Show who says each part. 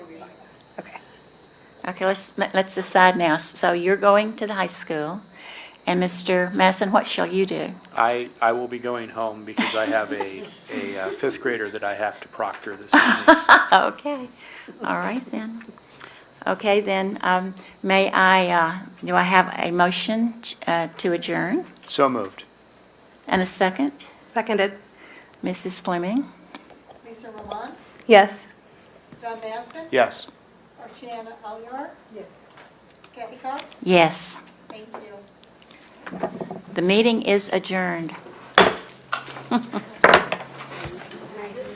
Speaker 1: Okay, let's, let's decide now. So you're going to the high school, and Mr. Madison, what shall you do?
Speaker 2: I, I will be going home because I have a, a uh, fifth grader that I have to proctor this evening.
Speaker 1: Okay, all right then. Okay, then, um, may I, uh, do I have a motion uh, to adjourn?
Speaker 2: So moved.
Speaker 1: And a second?
Speaker 3: Seconded.
Speaker 1: Mrs. Fleming?
Speaker 4: Lisa Roman,
Speaker 3: Yes.
Speaker 4: John Maston,
Speaker 2: Yes.
Speaker 4: Archana Aliyar. Yes. Kathy Cox,
Speaker 1: Yes.
Speaker 4: thank you.
Speaker 1: The meeting is adjourned.